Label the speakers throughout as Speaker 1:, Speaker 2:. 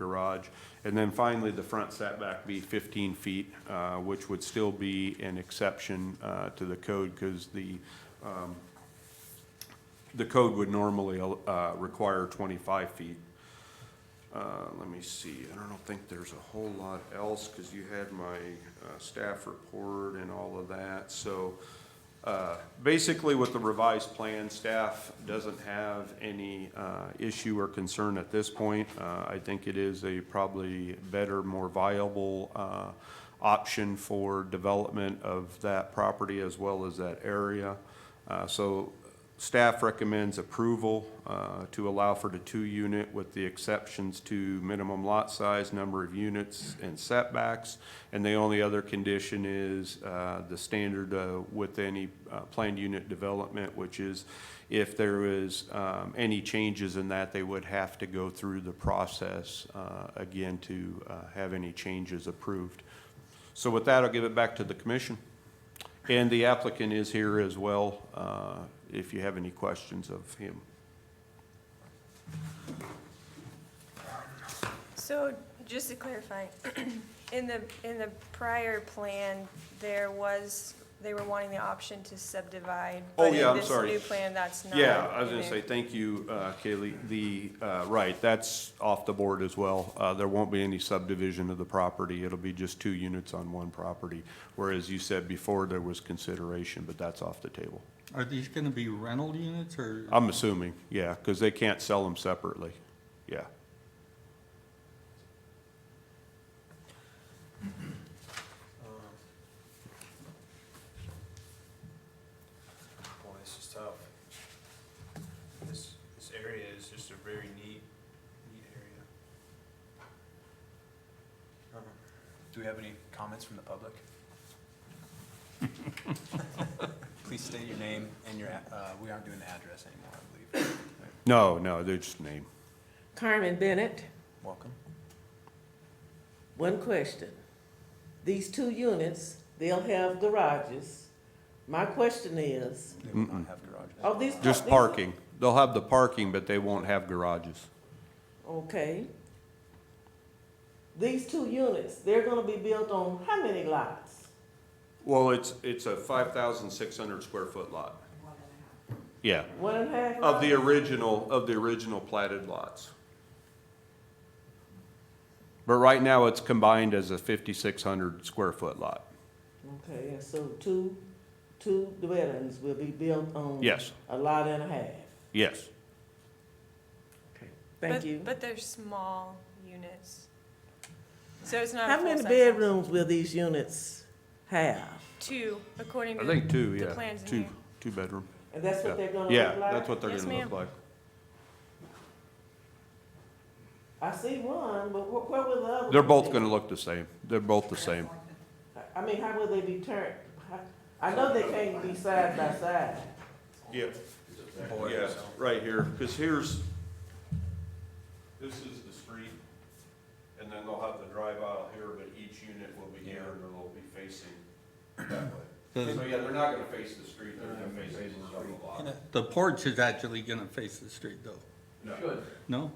Speaker 1: garage. And then finally, the front setback be 15 feet, uh, which would still be an exception uh, to the code because the, um, the code would normally uh, require 25 feet. Uh, Let me see, I don't think there's a whole lot else because you had my uh, staff report and all of that. So uh, basically with the revised plan, staff doesn't have any uh, issue or concern at this point. Uh, I think it is a probably better, more viable uh, option for development of that property as well as that area. Uh, So Staff recommends approval uh, to allow for the two-unit with the exceptions to minimum lot size, number of units, and setbacks. And the only other condition is uh, the standard uh, with any uh, planned unit development, which is if there is um, any changes in that, they would have to go through the process uh, again to uh, have any changes approved. So with that, I'll give it back to the commission. And the applicant is here as well, uh, if you have any questions of him.
Speaker 2: So, just to clarify, in the, in the prior plan, there was, they were wanting the option to subdivide.
Speaker 1: Oh,
Speaker 2: but in
Speaker 1: yeah, I'm
Speaker 2: this
Speaker 1: sorry.
Speaker 2: new plan, that's not.
Speaker 1: Yeah, I was
Speaker 2: in
Speaker 1: gonna say,
Speaker 2: there.
Speaker 1: thank you, uh, Kaylee. The, uh, right, that's off the board as well. Uh, There won't be any subdivision of the property. It'll be just two units on one property. Whereas you said before, there was consideration, but that's off the table.
Speaker 3: Are these gonna be rental units or?
Speaker 1: I'm assuming, yeah, because they can't sell them separately. Yeah.
Speaker 4: Um, Boy, this is tough. This, this area is just a very neat, neat area. Um, Do we have any comments from the public? Please state your name and your, a- uh, we aren't doing the address anymore, I believe.
Speaker 1: No, no, they're just name.
Speaker 5: Carmen Bennett,
Speaker 4: Welcome.
Speaker 5: one question. These two units, they'll have garages. My question is,
Speaker 4: They will not have garages.
Speaker 5: are these?
Speaker 1: Just
Speaker 5: these-
Speaker 1: parking. They'll have the parking, but they won't have garages.
Speaker 5: Okay. These two units, they're gonna be built on how many lots?
Speaker 1: Well, it's, it's a five thousand six hundred square foot lot. Yeah,
Speaker 5: One and a half?
Speaker 1: of the
Speaker 5: lots?
Speaker 1: original, of the original platted lots. But right now, it's combined as a fifty-six hundred square foot lot.
Speaker 5: Okay, and so two, two dwellings will be built on?
Speaker 1: Yes,
Speaker 5: A lot and a half.
Speaker 1: yes.
Speaker 5: Thank
Speaker 2: But-
Speaker 5: you.
Speaker 2: But they're small units. So it's not a
Speaker 5: How
Speaker 2: full-size
Speaker 5: many
Speaker 2: house.
Speaker 5: bedrooms will these units have?
Speaker 2: Two, according
Speaker 1: I
Speaker 2: to.
Speaker 1: think two,
Speaker 2: The
Speaker 1: yeah,
Speaker 2: plans in
Speaker 1: two,
Speaker 2: here.
Speaker 1: two bedroom.
Speaker 5: And that's
Speaker 1: Yeah.
Speaker 5: what they're gonna look like?
Speaker 1: Yeah, that's what they're
Speaker 2: Yes,
Speaker 1: gonna look
Speaker 2: ma'am.
Speaker 1: like.
Speaker 5: I see one, but wh- where will the other?
Speaker 1: They're
Speaker 5: one
Speaker 1: both
Speaker 5: be?
Speaker 1: gonna look the same. They're both the same.
Speaker 5: I- I mean, how will they be turned? How- I know they can't be side by side.
Speaker 1: Yeah,
Speaker 4: Boy,
Speaker 1: Yeah,
Speaker 4: so-
Speaker 1: right here, because here's, this is the street, and then they'll have the drive aisle here, but each unit will be here, and they'll be facing that way. So, yeah, they're not gonna face the street, they're gonna face the other lot.
Speaker 3: The porch is actually gonna face the street though,
Speaker 1: No.
Speaker 3: no?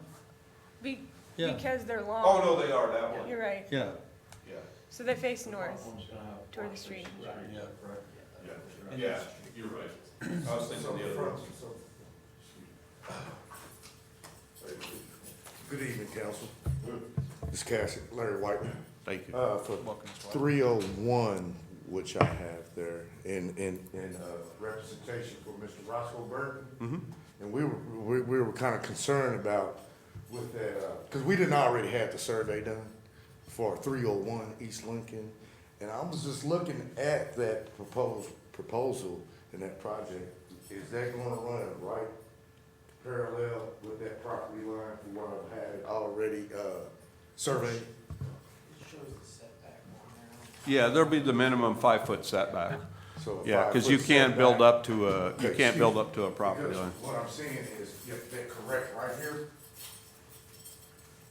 Speaker 2: Be,
Speaker 3: Yeah.
Speaker 2: because they're
Speaker 1: Oh,
Speaker 2: long.
Speaker 1: no, they are, that one,
Speaker 2: You're right.
Speaker 3: Yeah,
Speaker 1: yeah,
Speaker 2: So they face north, toward the street.
Speaker 3: yeah.
Speaker 1: yeah, yeah, you're right. I was thinking the other one.
Speaker 6: Good evening, council. This is Cassie, Larry Whiteman.
Speaker 1: Thank you.
Speaker 6: Uh, for
Speaker 4: Welcome as well.
Speaker 6: three oh one, which I have there, in, in, in, uh, representation for Mr. Roscoe Burton.
Speaker 1: Mm-hmm.
Speaker 6: And we were, we, we were kinda concerned about with that, uh, cause we didn't already have the survey done for three oh one East Lincoln. And I was just looking at that proposed, proposal and that project, is that gonna run right parallel with that property line from what I've had already, uh, surveyed?
Speaker 1: Yeah, there'll be the minimum five-foot setback,
Speaker 6: So a
Speaker 1: yeah, because you
Speaker 6: five-foot
Speaker 1: can't build
Speaker 6: setback.
Speaker 1: up to a, you
Speaker 6: Okay,
Speaker 1: can't build
Speaker 6: excuse-
Speaker 1: up to a property
Speaker 6: because
Speaker 1: line.
Speaker 6: What I'm saying is, if they're correct right here,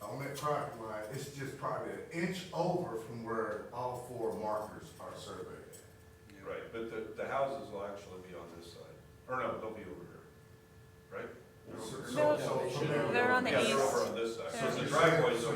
Speaker 6: on that property line, it's just probably an inch over from where all four markers are surveyed.
Speaker 1: Right, but the, the houses will actually be on this side, or no, they'll be over here, right?
Speaker 6: So-
Speaker 2: No,
Speaker 6: so- so from there-
Speaker 2: They're on the
Speaker 1: Yeah,
Speaker 2: east.
Speaker 1: they're over on this side, so
Speaker 2: They're-
Speaker 1: the driveway's over